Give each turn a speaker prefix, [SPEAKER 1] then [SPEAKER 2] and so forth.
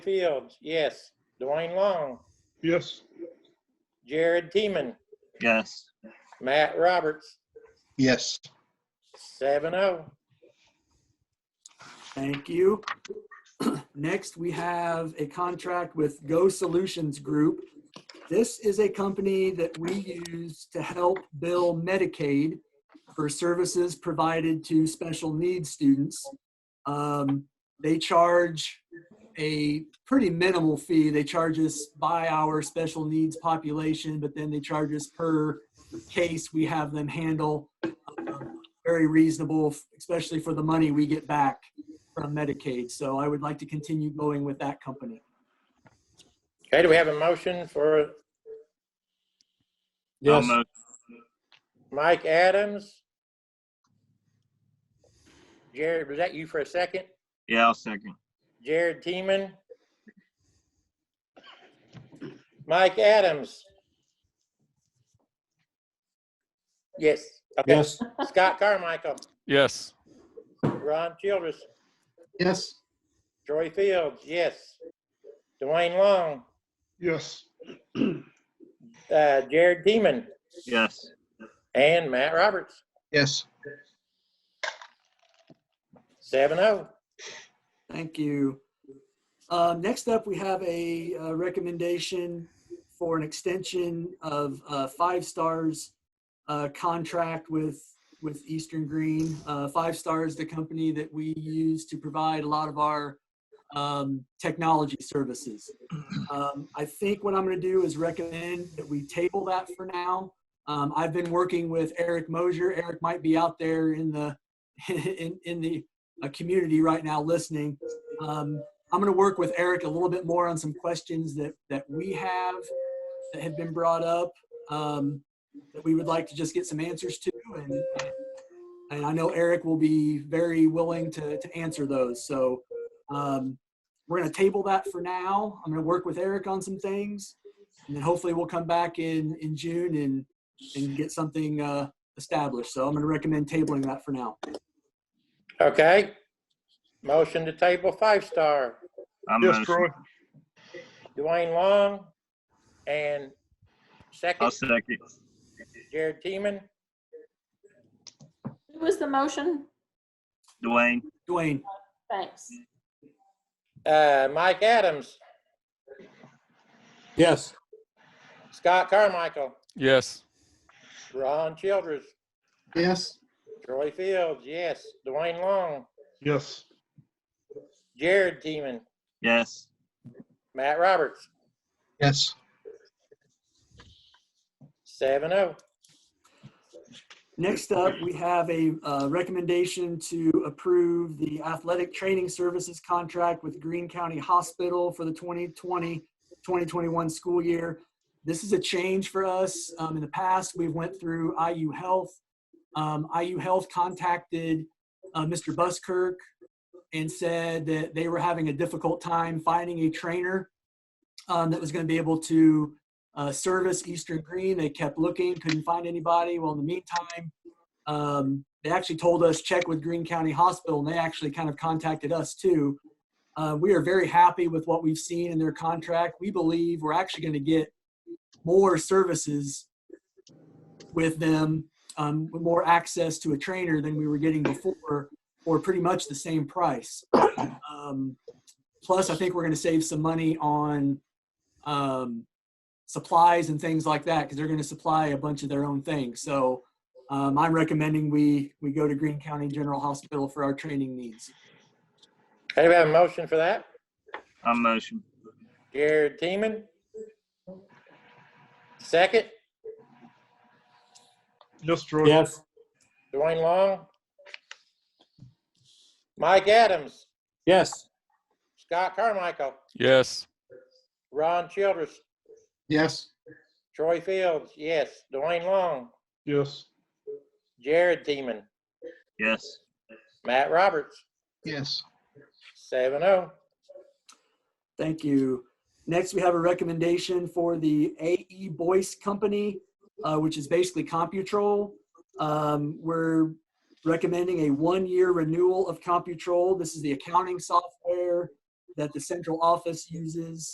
[SPEAKER 1] Fields, yes. Dwayne Long,
[SPEAKER 2] Yes.
[SPEAKER 1] Jared Teeman,
[SPEAKER 3] Yes.
[SPEAKER 1] Matt Roberts,
[SPEAKER 2] Yes.
[SPEAKER 1] seven oh.
[SPEAKER 4] Thank you. Next, we have a contract with Go Solutions Group. This is a company that we use to help bill Medicaid for services provided to special needs students. Um, They charge a pretty minimal fee. They charge us by our special needs population, but then they charge us per case we have them handle. Um, Very reasonable, especially for the money we get back from Medicaid, so I would like to continue going with that company.
[SPEAKER 1] Okay, do we have a motion for
[SPEAKER 3] I'll
[SPEAKER 5] Yes,
[SPEAKER 3] move.
[SPEAKER 1] Mike Adams? Jared, was that you for a second?
[SPEAKER 3] Yeah, I'll second.
[SPEAKER 1] Jared Teeman? Mike Adams? Yes. Okay.
[SPEAKER 5] yes,
[SPEAKER 1] Scott Carmichael,
[SPEAKER 6] Yes.
[SPEAKER 1] Ron Childress,
[SPEAKER 2] Yes.
[SPEAKER 1] Troy Fields, yes. Dwayne Long,
[SPEAKER 2] Yes.
[SPEAKER 1] uh, Jared Teeman,
[SPEAKER 3] Yes.
[SPEAKER 1] and Matt Roberts.
[SPEAKER 2] Yes.
[SPEAKER 1] Seven oh.
[SPEAKER 4] Thank you. Um, Next up, we have a uh, recommendation for an extension of uh, Five Stars uh, contract with, with Eastern Green. Uh, Five Stars, the company that we use to provide a lot of our um, technology services. Um, I think what I'm going to do is recommend that we table that for now. Um, I've been working with Eric Mosier. Eric might be out there in the, in, in the uh, community right now listening. Um, I'm going to work with Eric a little bit more on some questions that, that we have that have been brought up um, that we would like to just get some answers to. And, and I know Eric will be very willing to, to answer those. So um, we're going to table that for now. I'm going to work with Eric on some things. And then hopefully we'll come back in, in June and, and get something uh, established. So I'm going to recommend tabling that for now.
[SPEAKER 1] Okay. Motion to table five star.
[SPEAKER 3] I'll
[SPEAKER 2] Yes,
[SPEAKER 3] move.
[SPEAKER 2] Troy.
[SPEAKER 1] Dwayne Long and
[SPEAKER 3] I'll
[SPEAKER 1] second
[SPEAKER 3] second.
[SPEAKER 1] Jared Teeman.
[SPEAKER 7] Who was the motion?
[SPEAKER 3] Dwayne.
[SPEAKER 4] Dwayne.
[SPEAKER 7] Thanks.
[SPEAKER 1] Uh, Mike Adams,
[SPEAKER 5] yes,
[SPEAKER 1] Scott Carmichael,
[SPEAKER 6] Yes.
[SPEAKER 1] Ron Childress,
[SPEAKER 2] Yes.
[SPEAKER 1] Troy Fields, yes. Dwayne Long,
[SPEAKER 2] Yes.
[SPEAKER 1] Jared Teeman,
[SPEAKER 3] Yes.
[SPEAKER 1] Matt Roberts,
[SPEAKER 2] Yes.
[SPEAKER 1] seven oh.
[SPEAKER 4] Next up, we have a uh, recommendation to approve the athletic training services contract with Greene County Hospital for the 2020-2021 school year. This is a change for us. Um, In the past, we went through IU Health. Um, IU Health contacted uh, Mr. Buskirk and said that they were having a difficult time finding a trainer um, that was going to be able to uh, service Eastern Green. They kept looking, couldn't find anybody. Well, in the meantime, um, they actually told us check with Green County Hospital, and they actually kind of contacted us too. Uh, we are very happy with what we've seen in their contract. We believe we're actually going to get more services with them, um, with more access to a trainer than we were getting before, or pretty much the same price. Um, plus, I think we're going to save some money on um, supplies and things like that because they're going to supply a bunch of their own things. So um, I'm recommending we we go to Greene County General Hospital for our training needs.
[SPEAKER 1] Okay, we have a motion for that.
[SPEAKER 3] I'll motion.
[SPEAKER 1] Jared Teeman. Second,
[SPEAKER 2] Yes, Troy.
[SPEAKER 5] yes,
[SPEAKER 1] Dwayne Long. Mike Adams,
[SPEAKER 5] yes,
[SPEAKER 1] Scott Carmichael,
[SPEAKER 6] Yes.
[SPEAKER 1] Ron Childress,
[SPEAKER 2] Yes.
[SPEAKER 1] Troy Fields, yes. Dwayne Long,
[SPEAKER 2] Yes.
[SPEAKER 1] Jared Teeman,
[SPEAKER 3] Yes.
[SPEAKER 1] Matt Roberts, oh.
[SPEAKER 2] Yes.
[SPEAKER 1] 7-0.
[SPEAKER 4] Thank you. Next, we have a recommendation for the AE Boyce Company, uh, which is basically Computrol. Um, we're recommending a one-year renewal of Computrol. This is the accounting software that the central office uses